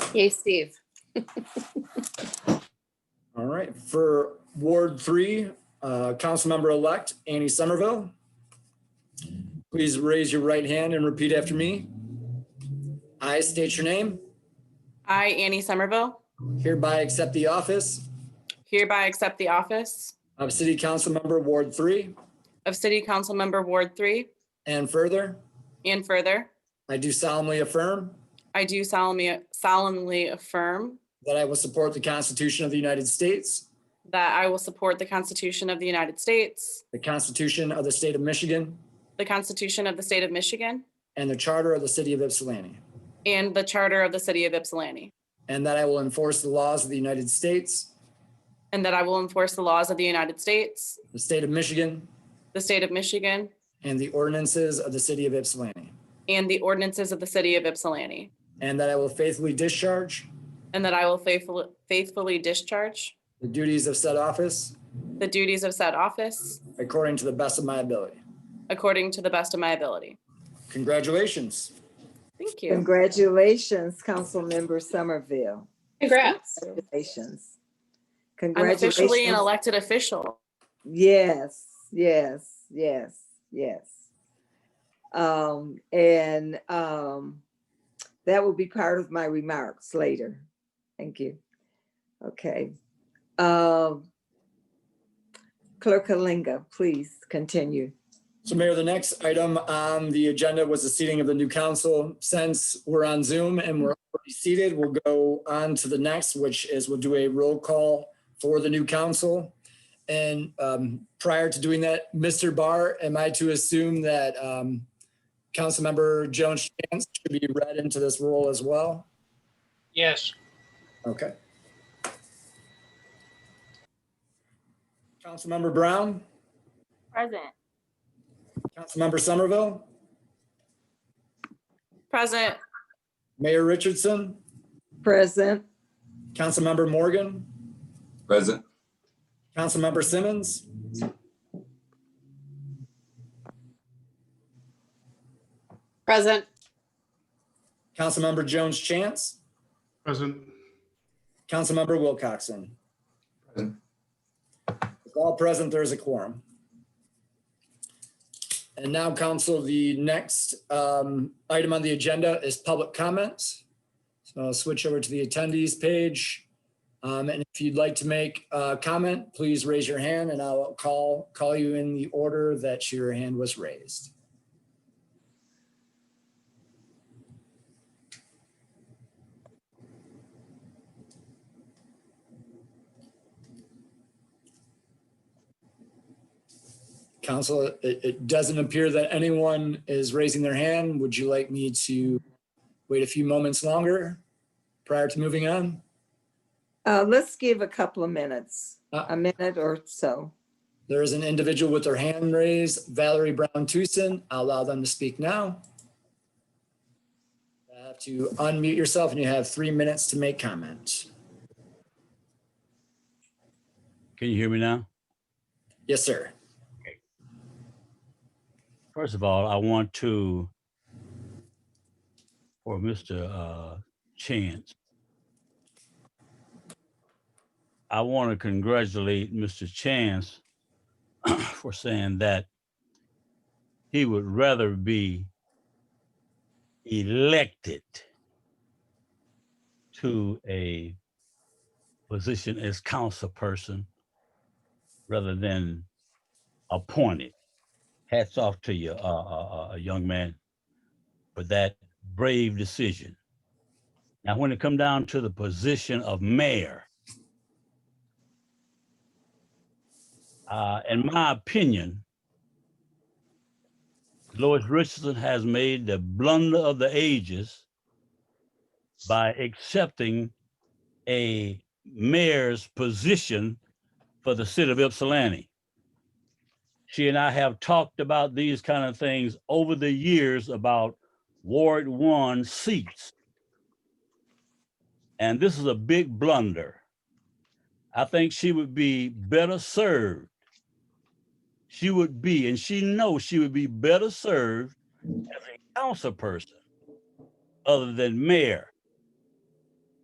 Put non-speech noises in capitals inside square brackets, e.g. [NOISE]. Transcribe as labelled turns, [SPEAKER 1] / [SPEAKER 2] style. [SPEAKER 1] Yay, Steve.
[SPEAKER 2] All right, for Ward Three, uh, Councilmember-elect Annie Somerville. Please raise your right hand and repeat after me. I state your name,
[SPEAKER 3] I, Annie Somerville,
[SPEAKER 2] hereby accept the office
[SPEAKER 3] hereby accept the office
[SPEAKER 2] of City Council Member Ward Three.
[SPEAKER 3] of City Council Member Ward Three,
[SPEAKER 2] And further,
[SPEAKER 3] and further,
[SPEAKER 2] I do solemnly affirm
[SPEAKER 3] I do solemnly solemnly affirm
[SPEAKER 2] that I will support the Constitution of the United States,
[SPEAKER 3] that I will support the Constitution of the United States,
[SPEAKER 2] the Constitution of the State of Michigan,
[SPEAKER 3] the Constitution of the State of Michigan,
[SPEAKER 2] and the Charter of the City of Ypsilanti,
[SPEAKER 3] and the Charter of the City of Ypsilanti,
[SPEAKER 2] and that I will enforce the laws of the United States,
[SPEAKER 3] and that I will enforce the laws of the United States,
[SPEAKER 2] the State of Michigan,
[SPEAKER 3] the State of Michigan,
[SPEAKER 2] and the ordinances of the City of Ypsilanti,
[SPEAKER 3] and the ordinances of the City of Ypsilanti,
[SPEAKER 2] and that I will faithfully discharge
[SPEAKER 3] and that I will faithfully faithfully discharge
[SPEAKER 2] the duties of said office
[SPEAKER 3] the duties of said office
[SPEAKER 2] according to the best of my ability.
[SPEAKER 3] according to the best of my ability.
[SPEAKER 2] Congratulations.
[SPEAKER 3] Thank you.
[SPEAKER 4] Congratulations, Councilmember Somerville.
[SPEAKER 1] Congrats.
[SPEAKER 4] Congratulations.
[SPEAKER 3] I'm officially an
[SPEAKER 4] Congratulations.
[SPEAKER 3] elected official.
[SPEAKER 4] Yes, yes, yes, yes. Um, and, um, that will be part of my remarks later. Thank you. Okay. Um, Clerk Kalinga, please continue.
[SPEAKER 2] So Mayor, the next item on the agenda was the seating of the new council. Since we're on Zoom and we're already seated, we'll go on to the next, which is we'll do a roll call for the new council. And um, prior to doing that, Mr. Barr, am I to assume that um, Councilmember Jones Chance should be read into this role as well?
[SPEAKER 5] Yes,
[SPEAKER 2] Okay. Councilmember Brown,
[SPEAKER 6] Present.
[SPEAKER 2] Councilmember Somerville,
[SPEAKER 3] Present,
[SPEAKER 2] Mayor Richardson,
[SPEAKER 4] Present,
[SPEAKER 2] Councilmember Morgan,
[SPEAKER 7] Present.
[SPEAKER 2] Councilmember Simmons,
[SPEAKER 1] Present.
[SPEAKER 2] Councilmember Jones Chance,
[SPEAKER 5] present.
[SPEAKER 2] Councilmember Wilcoxen.
[SPEAKER 7] Present.
[SPEAKER 2] If all present, there is a quorum. And now, council, the next um, item on the agenda is public comments. So I'll switch over to the attendees page. Um, And if you'd like to make a comment, please raise your hand and I'll call, call you in the order that your hand was raised. Council, it, it doesn't appear that anyone is raising their hand. Would you like me to wait a few moments longer prior to moving on?
[SPEAKER 4] uh, let's give a couple of minutes,
[SPEAKER 2] Uh,
[SPEAKER 4] a minute or so.
[SPEAKER 2] There is an individual with their hand raised, Valerie Brown Tucson. I'll allow them to speak now. You Have to unmute yourself and you have three minutes to make comment.
[SPEAKER 8] Can you hear me now?
[SPEAKER 2] Yes, sir.
[SPEAKER 8] First of all, I want to, for Mr. uh, Chance, I want to congratulate Mr. Chance [COUGHS] for saying that he would rather be elected to a position as council person rather than appointed hats off to you, uh, uh, uh, young man, for that brave decision. Now, when it come down to the position of mayor, uh, in my opinion, Lois Richardson has made the blunder of the ages by accepting a mayor's position for the city of Ypsilanti she and I have talked about these kind of things over the years about Ward One seats. And this is a big blunder. I think she would be better served. She would be, and she knows she would be better served as a council person other than mayor.